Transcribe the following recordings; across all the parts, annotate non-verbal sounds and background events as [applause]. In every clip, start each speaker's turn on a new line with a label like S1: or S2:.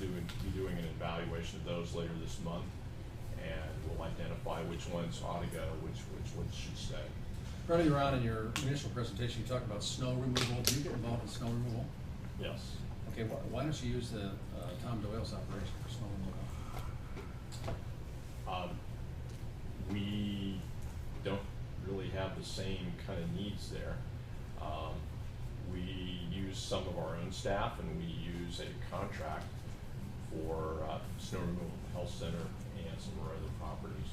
S1: be doing an evaluation of those later this month, and we'll identify which ones ought to go, which, which ones should stay.
S2: Earlier on in your initial presentation, you talked about snow removal. Do you get involved in snow removal?
S1: Yes.
S2: Okay, wh- why don't you use the uh, Tom Doyle's operation for snow removal?
S1: Um, We don't really have the same kind of needs there. Um, We use some of our own staff and we use a contract for uh, snow removal at the health center and some of our other properties.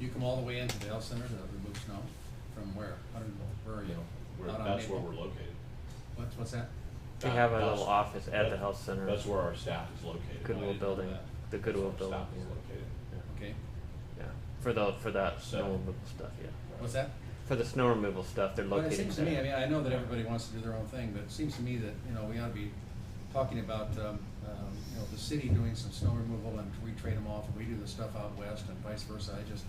S2: You come all the way into the health center to remove snow? From where? I don't know. Where are
S1: You
S2: you?
S1: know, where-
S2: Out on
S1: that's where
S2: Maple?
S1: we're located.
S2: What's, what's that?
S3: We have a
S1: That's-
S3: little office at the
S1: that-
S3: health center.
S1: That's where our staff is located.
S2: I
S3: Goodwill
S2: didn't know
S3: building,
S2: that.
S3: the
S1: That's where
S3: Goodwill
S1: our
S3: building.
S1: Staff is
S3: yeah.
S1: located.
S2: Okay.
S3: Yeah, for the, for that
S1: So-
S3: snow removal stuff, yeah.
S2: What's that?
S3: For the snow removal stuff, they're
S2: But
S3: located
S2: it
S3: there.
S2: seems to me, I mean, I know that everybody wants to do their own thing, but it seems to me that, you know, we ought to be talking about, um, um, you know, the city doing some snow removal and we trade them off and we do the stuff out west and vice versa. I just,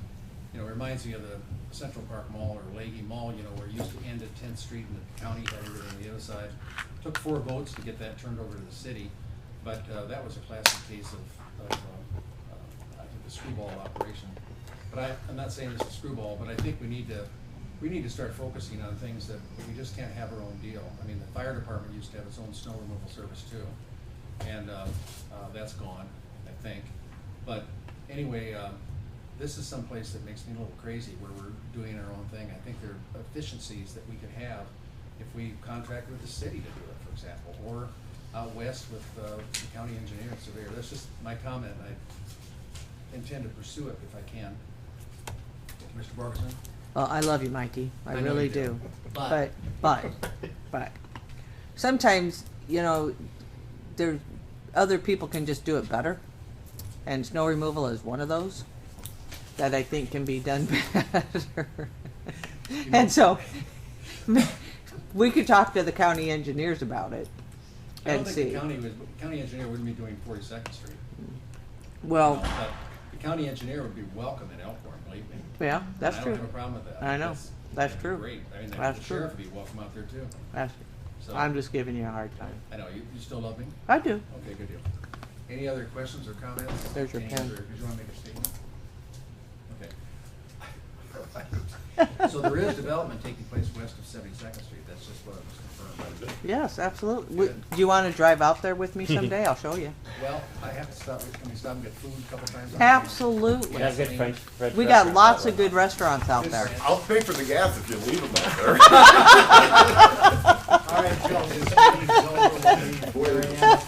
S2: you know, it reminds me of the Central Park Mall or Leahy Mall, you know, where it used to end at Tenth Street and the county had everything on the other side. Took four votes to get that turned over to the city, but, uh, that was a classic case of, of, uh, uh, I think the screwball operation. But I, I'm not saying it's a screwball, but I think we need to, we need to start focusing on things that we just can't have our own deal. I mean, the fire department used to have its own snow removal service too, and, uh, uh, that's gone, I think. But anyway, uh, this is someplace that makes me a little crazy where we're doing our own thing. I think there are efficiencies that we could have if we contract with the city to do it, for example, or out west with, uh, the county engineer and surveyor. That's just my comment. I intend to pursue it if I can. Mr. Borgeson?
S4: Well, I love you, Mikey. I,
S2: I know
S4: really
S2: you do.
S4: do.
S2: But-
S4: But, but, but, sometimes, you know, there, other people can just do it better. And snow removal is one of those that I think can be done [laughs] better. and so, [laughs] we could talk to the county engineers about it
S2: I don't
S4: and
S2: think
S4: see.
S2: the county was, county engineer wouldn't be doing Forty-second Street.
S4: Well,
S2: No, but The county engineer would be welcome in Elkhorn, believe me.
S4: yeah, that's
S2: I
S4: true.
S2: don't have a problem with that.
S4: I know.
S2: That's-
S4: That's
S2: that'd be
S4: true.
S2: Great, I mean, the
S4: That's true.
S2: sheriff would be welcome out there too.
S4: That's-
S2: So-
S4: I'm just giving you a hard time.
S2: I know, you, you still love me?
S4: I do.
S2: Okay, good deal. Any other questions or comments?
S4: There's your
S2: Any
S4: pen.
S2: other- Did you wanna make a statement? Okay. So there is development taking place west of Seventy-second Street, that's just what I was confirmed.
S4: Yes, absolutely. Would- Do you want to drive out there with me someday? I'll show you.
S2: Well, I have to stop, can we stop and get food a couple times?
S4: Absolutely.
S3: We have good
S2: Yes.
S3: French, French
S4: We got
S3: restaurants
S4: lots
S3: out
S4: of good restaurants out there.
S5: I'll pay for the gas if you leave them out there.
S2: All right, Joe, this meeting is over. We'll be-